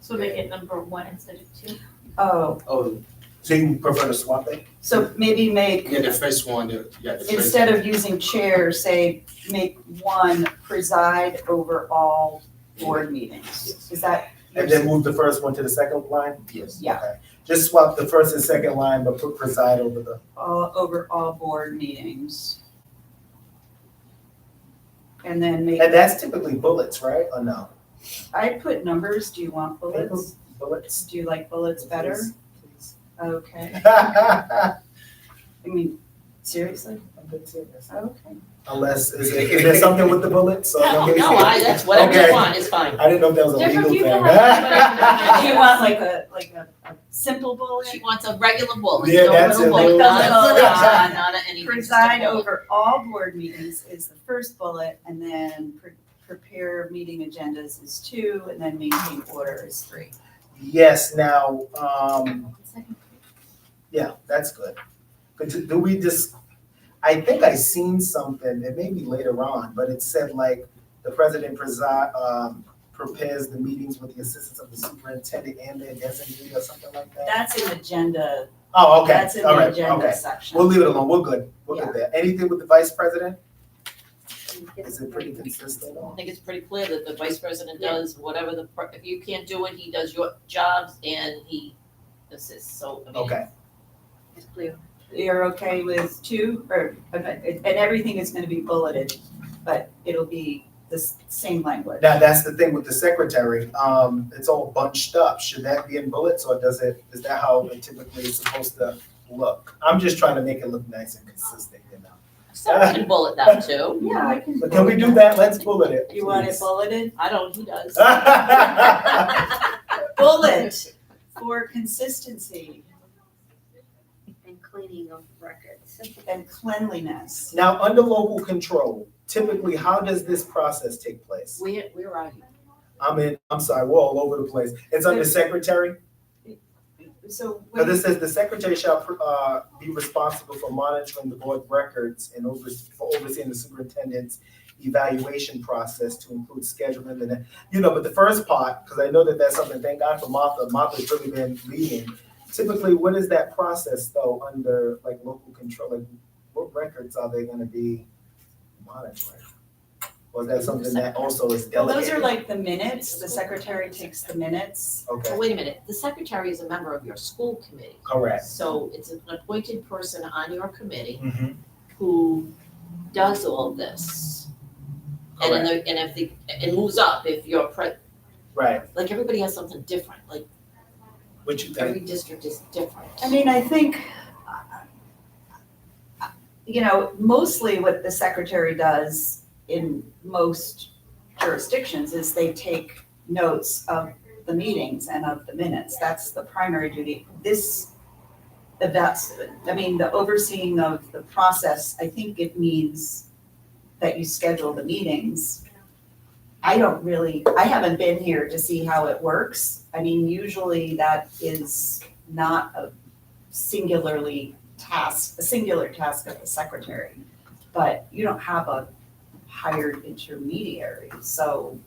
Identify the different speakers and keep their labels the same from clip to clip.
Speaker 1: So make it number one instead of two.
Speaker 2: Oh,
Speaker 3: Oh,
Speaker 4: So you prefer to swap it?
Speaker 2: so maybe make,
Speaker 3: yeah, the first one, the- yeah, the first.
Speaker 2: instead of using chair, say, make one preside over all board meetings. Is that?
Speaker 4: And then move the first one to the second line?
Speaker 3: Yes,
Speaker 2: Yeah,
Speaker 4: Okay. Just swap the first and second line, but put preside over the,
Speaker 2: all, over all board meetings. And then make,
Speaker 4: and that's typically bullets, right? Or no?
Speaker 2: I put numbers, do you want bullets?
Speaker 4: Bullets?
Speaker 2: Do you like bullets better?
Speaker 4: Please.
Speaker 2: Okay, I mean, seriously?
Speaker 4: I'm good too, yes.
Speaker 2: Okay.
Speaker 4: Unless, is it- is there something with the bullets? or
Speaker 5: No,
Speaker 4: nobody-
Speaker 5: no, I, that's whatever
Speaker 4: Okay.
Speaker 5: you want, it's fine.
Speaker 4: I didn't know if that was a
Speaker 1: Different
Speaker 4: legal thing.
Speaker 1: people have
Speaker 2: Do you want like a, like a, a simple bullet?
Speaker 5: She wants a regular bullet,
Speaker 4: Yeah,
Speaker 5: no
Speaker 4: that's
Speaker 5: little
Speaker 4: it.
Speaker 5: bullet, not a
Speaker 2: Little
Speaker 5: little,
Speaker 2: bullet.
Speaker 5: not, not a any. just a
Speaker 2: Preside
Speaker 5: bullet.
Speaker 2: over all board meetings is the first bullet, and then pre- prepare meeting agendas is two, and then maintain order is three.
Speaker 4: Yes, now, um,
Speaker 1: One second.
Speaker 4: Yeah, that's good. But do, do we just, I think I seen something, it may be later on, but it said like, the president presi- um, prepares the meetings with the assistance of the superintendent and their designee or something like that?
Speaker 2: That's an agenda,
Speaker 4: Oh, okay,
Speaker 2: that's in
Speaker 4: all
Speaker 2: the
Speaker 4: right, okay.
Speaker 2: agenda section.
Speaker 4: We'll leave it alone, we're good, we're good there. Anything with the vice president? Is it pretty consistent
Speaker 5: I
Speaker 4: or?
Speaker 5: think it's pretty clear that the vice president does whatever the, pr- if you can't do it, he does your jobs and he assists, so, I mean,
Speaker 4: Okay,
Speaker 5: it's clear.
Speaker 2: You're okay with two, or, and everything is gonna be bulleted, but it'll be the s- same language.
Speaker 4: now that's the thing with the secretary, um, it's all bunched up. Should that be in bullets or does it, is that how it typically is supposed to look? I'm just trying to make it look nice and consistent, you know?
Speaker 5: Someone can bullet that too,
Speaker 2: Yeah, I can.
Speaker 4: But can we do that? Let's bullet it.
Speaker 2: You want it bulleted?
Speaker 5: I don't, he does.
Speaker 2: Bullet for consistency
Speaker 6: and cleaning of records.
Speaker 2: and cleanliness.
Speaker 4: Now, under local control, typically, how does this process take place?
Speaker 5: Where, where are you?
Speaker 4: I'm in, I'm sorry, we're all over the place. It's under secretary,
Speaker 2: So
Speaker 4: but
Speaker 2: when,
Speaker 4: this says the secretary shall, uh, be responsible for monitoring the board records and over, for overseeing the superintendent's evaluation process to include scheduling and, you know, but the first part, because I know that that's something, thank God for Martha, Martha's really been leading. Typically, what is that process though, under like local control, like what records are they gonna be monitoring? Or is that something that also is
Speaker 2: well, those
Speaker 4: delegated?
Speaker 2: are like the minutes, the secretary takes the minutes.
Speaker 4: Okay,
Speaker 5: Wait a minute, the secretary is a member of your school committee.
Speaker 4: correct.
Speaker 5: So it's an appointed person on your committee
Speaker 4: Mhm.
Speaker 5: who does all this. And in the, and if the, it moves up if you're pre,
Speaker 4: Right,
Speaker 5: like, everybody has something different, like,
Speaker 4: what you think?
Speaker 5: every district is different.
Speaker 2: I mean, I think, uh, you know, mostly what the secretary does in most jurisdictions is they take notes of the meetings and of the minutes. That's the primary duty. This, that's, I mean, the overseeing of the process, I think it means that you schedule the meetings. I don't really, I haven't been here to see how it works. I mean, usually that is not a singularly task, a singular task of the secretary. But you don't have a hired intermediary, so,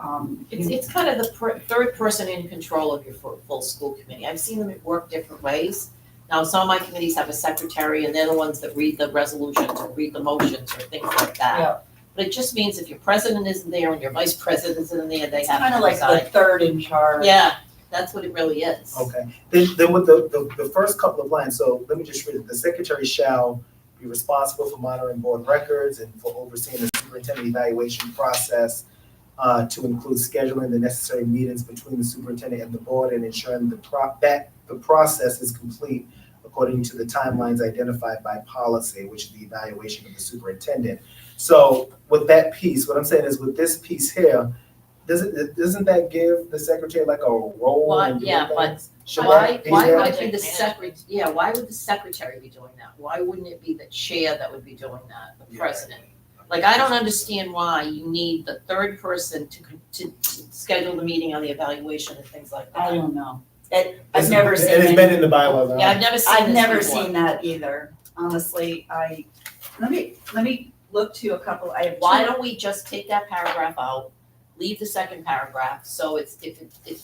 Speaker 2: um,
Speaker 5: It's,
Speaker 2: you-
Speaker 5: it's kind of the per- third person in control of your full, full school committee. I've seen them work different ways. Now, some of my committees have a secretary and they're the ones that read the resolutions or read the motions or things like that.
Speaker 2: Yeah.
Speaker 5: But it just means if your president isn't there and your vice president isn't there, they
Speaker 2: it's
Speaker 5: have
Speaker 2: kind
Speaker 5: to
Speaker 2: of like
Speaker 5: decide.
Speaker 2: the third in charge.
Speaker 5: Yeah, that's what it really is.
Speaker 4: Okay, then, then with the, the, the first couple of lines, so let me just read it, the secretary shall be responsible for monitoring board records and for overseeing the superintendent evaluation process uh, to include scheduling the necessary meetings between the superintendent and the board and ensuring the pro, that the process is complete according to the timelines identified by policy, which is the evaluation of the superintendent. So with that piece, what I'm saying is with this piece here, doesn't, doesn't that give the secretary like a role
Speaker 5: Why-
Speaker 4: in doing
Speaker 5: yeah, but
Speaker 4: things? Should
Speaker 5: Why,
Speaker 4: that be
Speaker 5: why
Speaker 4: there?
Speaker 5: would it be the
Speaker 1: Project
Speaker 5: secretary, yeah, why would the secretary be doing that? Why wouldn't it be the chair that would be doing that, the
Speaker 4: Yeah.
Speaker 5: president? Like, I don't understand why you need the third person to, con- to to schedule the meeting on the evaluation and things like
Speaker 2: I
Speaker 5: that.
Speaker 2: don't know. It, I've never seen
Speaker 4: And it's been
Speaker 2: any,
Speaker 4: in the bylaws,
Speaker 5: Yeah,
Speaker 4: huh?
Speaker 5: I've never seen
Speaker 2: I've
Speaker 5: this
Speaker 2: never
Speaker 5: before.
Speaker 2: seen that either, honestly, I, let me, let me look to a couple, I have two
Speaker 5: Why don't we just take that paragraph out, leave the second paragraph, so it's, if it, if